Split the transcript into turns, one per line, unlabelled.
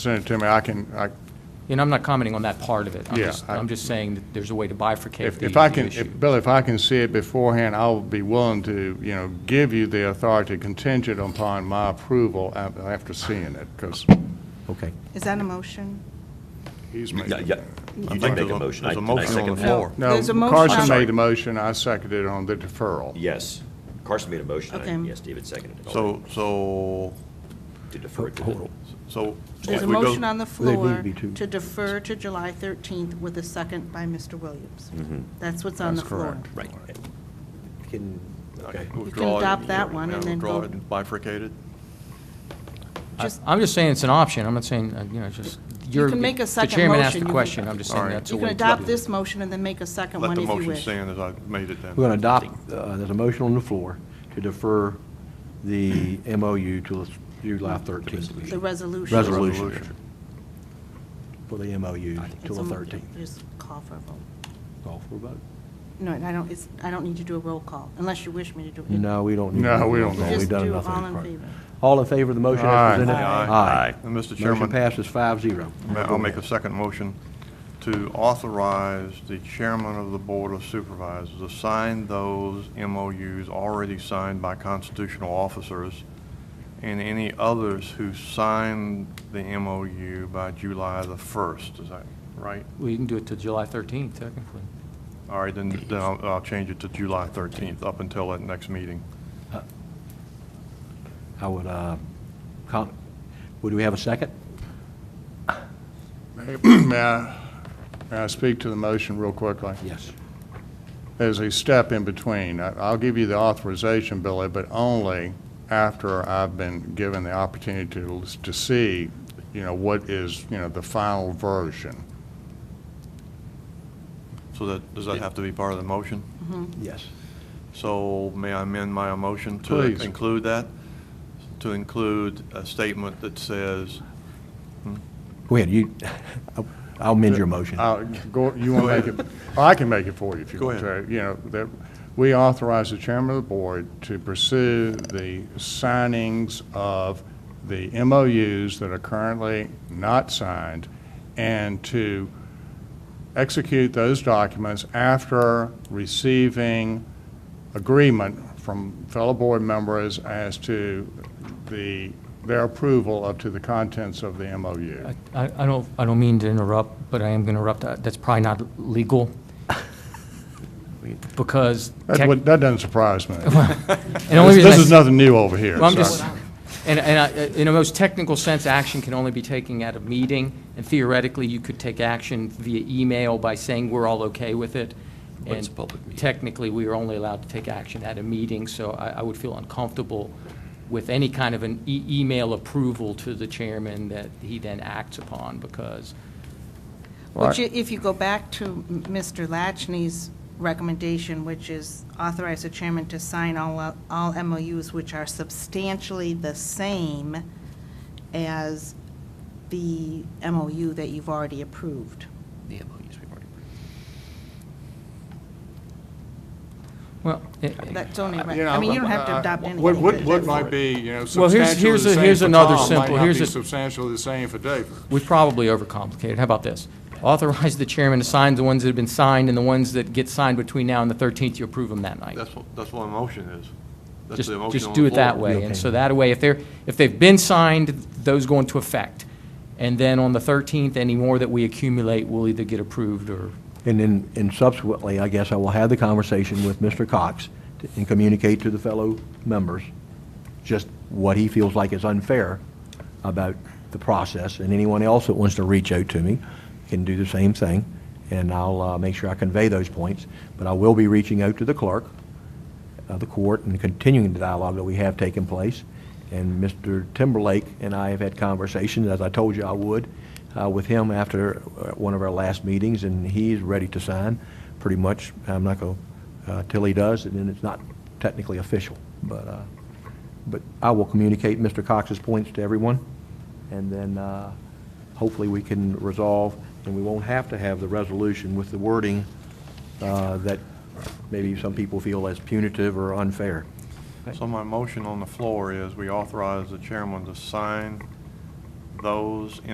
send it to me, I can, I,
And I'm not commenting on that part of it. I'm
Yeah,
just-
I-
I'm just saying that there's a way to bifurcate
if,
the
if I
the
can,
issue.
if- Bill, if I can see it beforehand, I'll be willing to, you know, give you the authority contingent upon my approval af- after seeing it, because
Okay.
Is that a motion?
he's
Yeah,
making.
yeah. I make a motion. I-
There's a
and I
motion on
second
the
that.
floor.
No,
There's a motion
Carson
on-
made a motion, I seconded it on the deferral.
Yes. Carson made a motion, and
Okay.
yes, David seconded it.
So, so,
To defer it to the-
so.
There's
if
a
we go-
motion on the
They need to
floor
be two.
to defer to July 13th with a second by Mr. Williams. That's what's on the
That's
floor.
correct.
Right.
Can,
Okay.
withdraw it
adopt
and-
that one
yeah,
and then
withdraw
go-
it and Bifurcate it.
I-
Just-
I'm just saying it's an option. I'm not saying, uh, you know, just, you're.
can make a
The
second
chairman asked
motion.
the
You can-
question. I'm just saying
Alright.
that's a
You
way to
can
do it.
adopt this motion and then make a second
Let
one
the
if you
motion
wish.
stand as I made it then.
we're going to adopt, uh, there's a motion on the floor to defer the MOU to July 13th.
The resolution.
Resolution. For the MOU
It's
till the
a mo-
13th.
Just call for a vote.
Call for a vote.
No, and I don't, it's, I don't need to do a roll call, unless you wish me to do it.
No, we don't need.
No, we don't
We've
need
Just
done
do
enough of
all
that
in
part.
favor.
All in favor of the motion as
Aye.
presented?
Aye.
Aye.
And Mr.
Motion
Chairman-
passes five zero.
Ma- I'll make a second motion to authorize the chairman of the Board of Supervisors to sign those MOUs already signed by constitutional officers and any others who signed the MOU by July the 1st, is that right?
We can do it to July 13th, technically.
All right, then then I'll I'll change it to July 13th, up until that next meeting.
I would, uh, com- would we have a second?
May I, may I speak to the motion real quickly?
Yes.
There's a step in between. I- I'll give you the authorization, Billy, but only after I've been given the opportunity to, to see, you know, what is, you know, the final version.
So that, does that have to be part of the motion?
Yes.
So may I amend my motion to
Please.
include that? To include a statement that says,
Go ahead, you, I'll amend your motion.
Uh, Go, you want to make it, I can make it for you if you
Go
want to.
ahead.
You know, that, we authorize the chairman of the board to pursue the signings of the MOUs that are currently not signed and to execute those documents after receiving agreement from fellow board members as to the, their approval up to the contents of the MOU.
I, I I don't, I don't mean to interrupt, but I am going to interrupt. Uh, That's probably not legal. Because.
That
tech-
would- that doesn't surprise me.
and only
This
reason I
this is
s-
nothing new over here.
Well, I'm
so-
just, and, and I- uh, in a most technical sense, action can only be taken at a meeting, and theoretically, you could take action via email by saying we're all okay with it.
But it's a public
And
meeting.
technically, we are only allowed to take action at a meeting, so I, I would feel uncomfortable with any kind of an e- email approval to the chairman that he then acts upon, because
Which, i- if you go back to m- Mr. Lachney's recommendation, which is authorize the chairman to sign all, o- all MOUs which are substantially the same as the MOU that you've already approved.
The MOUs we've already approved.
Well, it-
That's only, right.
You know,
I mean, you don't have
I-
to
I-
adopt anything.
What, what,
but
what
that's-
might be, you know,
Well, here's-
substantially
here's a-
the same
here's
for
another
Tom might
simple-
not
here's
be
a-
substantially the same for David.
we've probably overcomplicated. How about this? Authorize the chairman to sign the ones that have been signed, and the ones that get signed between now and the 13th, you approve them that night.
that's what, that's what a motion is. That's
Just,
the motion
just
on
do
the
it that
floor.
way.
Okay.
And so that way, if they're, if they've been signed, those go into effect. And then on the 13th, any more that we accumulate will either get approved or,
And then, and subsequently, I guess I will have the conversation with Mr. Cox to- and communicate to the fellow members just what he feels like is unfair about the process, and anyone else that wants to reach out to me can do the same thing, and I'll uh, make sure I convey those points. But I will be reaching out to the clerk of uh, the court and continuing the dialogue that we have taken place. And Mr. Timberlake and I have had conversations, as I told you I would, uh, with him after uh, one of our last meetings, and he's ready to sign, pretty much. I'm not going, to till he does, and then it's not technically official. But, uh, but I will communicate Mr. Cox's points to everyone, and then uh, hopefully we can resolve, and we won't have to have the resolution with the wording uh, that maybe some people feel as punitive or unfair.
So my motion on the floor is we authorize the chairman to sign those